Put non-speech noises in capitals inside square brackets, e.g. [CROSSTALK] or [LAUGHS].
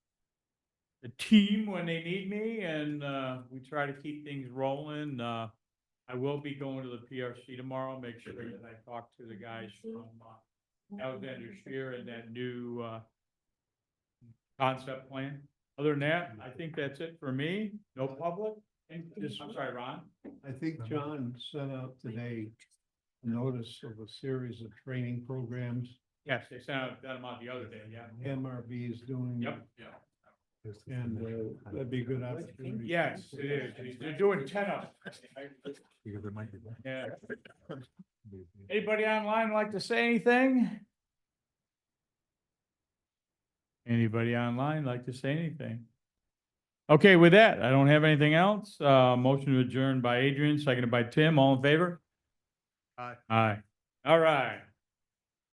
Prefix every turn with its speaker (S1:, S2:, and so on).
S1: team when they need me and, uh, we try to keep things rolling. Uh, I will be going to the PRC tomorrow, make sure that I talk to the guys from, uh, Alexander Spear and that new, uh, concept plan. Other than that, I think that's it for me. No public. And just, I'm sorry, Ron.
S2: I think John sent out today a notice of a series of training programs
S1: Yes, they sent out, got them out the other day, yeah.
S2: MRV is doing.
S1: Yep, yeah.
S2: And uh, that'd be a good opportunity.
S1: Yes, it is. They're doing ten of them.
S3: Because there might be. one.
S1: Yeah.
S2: [LAUGHS]
S1: Anybody online like to say anything? Anybody online like to say anything? Okay, with that, I don't have anything else. Uh, motion to adjourn by Adrian, seconded by Tim, all in favor?
S3: Aye.
S1: Aye. All right.